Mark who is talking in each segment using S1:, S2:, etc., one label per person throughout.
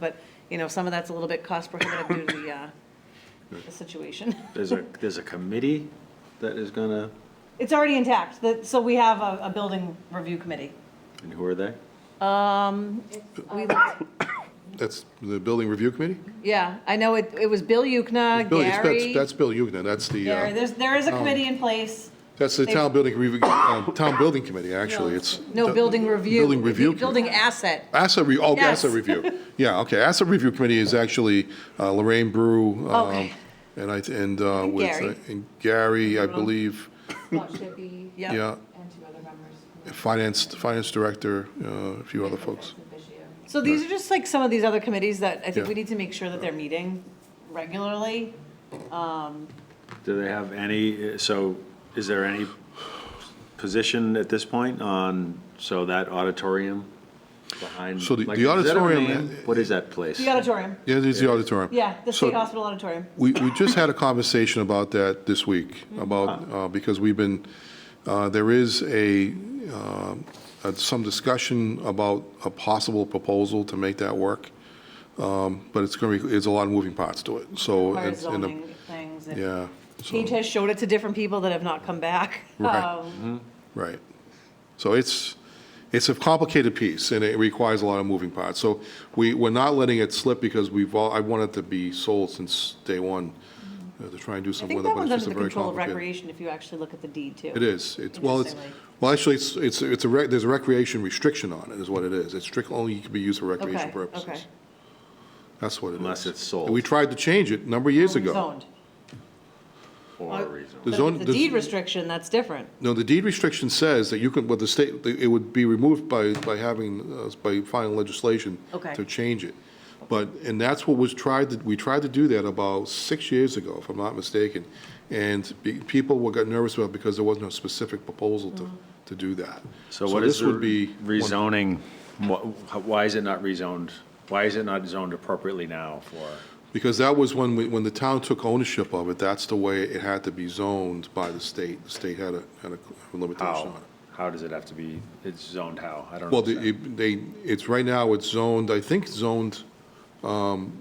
S1: But, you know, some of that's a little bit cost prohibitive due to the, uh, the situation.
S2: There's a, there's a committee that is gonna,
S1: It's already intact, that, so we have a, a building review committee.
S2: and who are they?
S1: Um, we looked-
S3: That's the Building Review Committee?
S1: yeah, I know it, it was Bill Yukna,
S3: Bill- it's- that's-
S1: Uh, Gary.
S3: That's Bill Yugnan, that's the,
S1: Gary,
S3: uh,
S1: there's, there is a committee in place.
S3: that's the
S1: they-
S3: Town Building, Review- uh, Town Building Committee, actually, it's.
S1: No, building review.
S3: Building Review.
S1: Building asset.
S3: Asset, re- oh,
S1: Yes.
S3: asset review. Yeah, okay, asset review committee is actually uh, Lorraine Brew. um,
S1: Oh, Okay.
S3: And I, and uh,
S1: And
S3: with, uh,
S1: Gary.
S3: and Gary, I believe,
S4: Scott Shippey
S1: Yeah.
S3: yeah,
S4: and two other members.
S3: finance, finance director, uh, a few other folks.
S1: So these are just like some of these other committees that I think
S3: Yeah.
S1: we need to make sure that they're meeting regularly.
S2: Do they have any, so is there any position at this point on, so that auditorium behind?
S3: So the-
S2: like,
S3: the
S2: is that a
S3: auditorium-
S2: name? What is that place?
S1: The auditorium,
S3: Yeah, there's the auditorium.
S1: yeah, the
S3: So-
S1: state hospital auditorium.
S3: We, we just had a conversation about that this week, about, uh, because we've been, uh, there is a, um, uh, some discussion about a possible proposal to make that work, Um, but it's going to be, it's a lot of moving parts to it, so.
S1: Fire
S3: it's in Oh, the-
S1: zoning things. and-
S3: Yeah,
S1: Pete
S3: so,
S1: has showed it to different people that have not come back.
S3: Right.
S1: Um,
S3: right. So it's, it's a complicated piece, and it requires a lot of moving parts. So we, we're not letting it slip because we've all, I want it to be sold since day one, uh, to try and do
S1: Mm-hmm. I
S3: something
S1: think
S3: with it,
S1: that
S3: but
S1: one's
S3: it's
S1: under
S3: just a
S1: the
S3: very
S1: control of
S3: complicated.
S1: recreation if you actually look at the deed too.
S3: It is. It's, well, it's,
S1: Interestingly.
S3: well, actually, it's, it's, it's a, rec- there's a recreation restriction on it, is what it is. It's strictly, only can be used for
S1: Okay,
S3: recreation
S1: okay.
S3: purposes. That's what it is.
S2: Unless it's sold.
S3: And we tried to change it a number of years ago.
S1: Zoned.
S2: Or rezoned?
S1: But if
S3: zone-
S1: it's a
S3: the-
S1: deed restriction, that's different.
S3: No, the deed restriction says that you can, well, the state, it would be removed by, by having, uh, by final legislation
S1: Okay.
S3: to change it. But, and that's what was tried, to- we tried to do that about six years ago, if I'm not mistaken. And be- people were, got nervous about it because there wasn't a specific proposal to,
S1: Mm-hmm.
S3: to do that.
S2: So what is
S3: this would be
S2: the
S3: one of-
S2: rezoning? Wh- how- Why is it not rezoned? Why is it not zoned appropriately now for?
S3: Because that was when, we- when the town took ownership of it, that's the way it had to be zoned by the state. The state had a, had a limitation
S2: How?
S3: on it.
S2: How does it have to be, it's zoned how? I don't
S3: Well, the-
S2: know.
S3: it- they, it's, right now, it's zoned, I think zoned, um,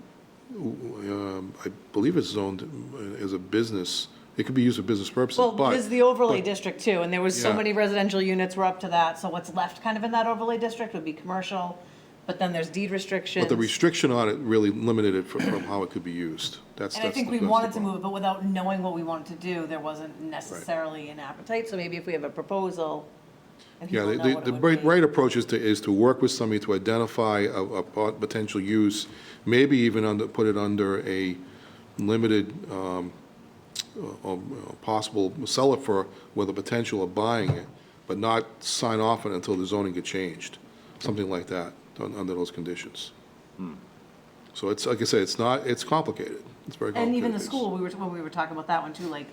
S3: w- um, I believe it's zoned uh, as a business. It could be used for business purposes,
S1: Well,
S3: but.
S1: there's the overlay district too, and there was so
S3: Yeah.
S1: many residential units were up to that, so what's left kind of in that overlay district would be commercial, but then there's deed restrictions.
S3: But the restriction on it really limited it from, from how it could be used. That's, that's.
S1: And I think
S3: the-
S1: we
S3: that's the
S1: wanted to
S3: problem.
S1: move it, but without knowing what we wanted to do, there wasn't necessarily an appetite, so maybe if we have a proposal and
S3: Yeah,
S1: people
S3: the,
S1: know
S3: the-
S1: what
S3: the
S1: it would
S3: right,
S1: be.
S3: right approach is to, is to work with somebody to identify a, a pot- potential use, maybe even under, put it under a limited, um, uh, um, uh, possible seller for, with a potential of buying it, but not sign off on it until the zoning get changed, something like that, un- under those conditions. So it's, like I said, it's not, it's complicated, it's very complicated.
S1: And even the
S3: It's-
S1: school, we were, when we were talking about that one too, like,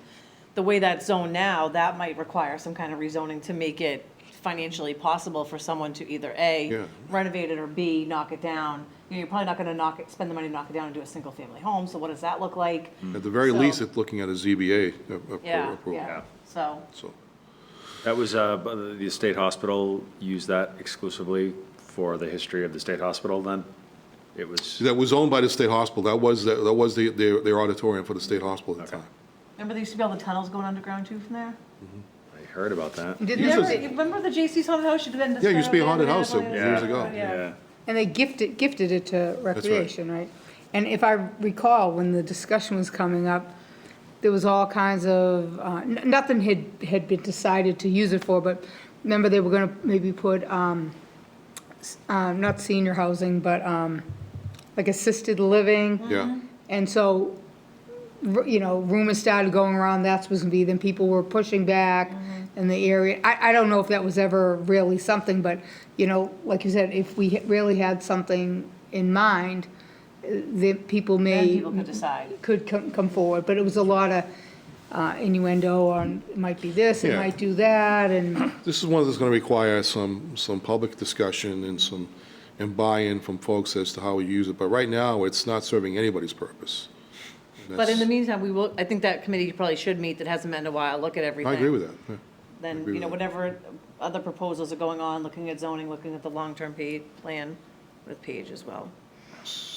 S1: the way that's zoned now, that might require some kind of rezoning to make it financially possible for someone to either
S3: Yeah.
S1: A, renovate it, or B, knock it down. You know, you're probably not gonna knock it, spend the money to knock it down and do a single-family home, so what does that look like?
S3: At the very
S1: So-
S3: least, it's looking at a ZBA a- appro-
S1: Yeah,
S3: Mm-hmm. approval,
S1: yeah, so,
S3: so.
S2: That was, uh, bu- the state hospital used that exclusively for the history of the state hospital then? It was,
S3: That was owned by the state hospital. That was, that was the- their their auditorium for the state hospital at
S2: Okay.
S3: the time.
S1: remember there used to be all the tunnels going underground too from there?
S2: I heard about that.
S5: Did
S3: Yes,
S1: Remember,
S3: it's-
S5: they,
S1: remember the JC's haunted house? Should have been
S3: Yeah, it used to be a haunted house
S1: destroyed.
S3: there years
S2: Yeah,
S3: ago.
S2: Yeah,
S5: and they gifted, gifted it to recreation, right? And if I recall, when the discussion was coming up, there was all kinds of, uh, n- nothing had, had been decided to use it for, but remember they were gonna maybe put, um, s- uh, not senior housing, but, um, like assisted living.
S3: Yeah.
S5: And so, r- you know, rumors started going around that's was gonna be, then people were pushing back
S1: Mm-hmm.
S5: in the area. I, I don't know if that was ever really something, but, you know, like you said, if we ha- really had something in mind, uh, that people
S1: Then
S5: may,
S1: people could decide.
S5: could come, come forward, but it was a lot of uh, innuendo on, it might be this, it
S3: Yeah.
S5: might do that, and,
S3: This is one that's going to require some, some public discussion and some, and buy-in from folks as to how we use it. But right now, it's not serving anybody's purpose.
S1: But in the
S3: That's-
S1: meantime, we will, I think that committee probably should meet, that hasn't met in a while, look at everything.
S3: I agree with that. yeah.
S1: Then,
S3: agree
S1: you know,
S3: with
S1: whatever other proposals are going on, looking at zoning, looking at the long-term pa- plan with Page as well.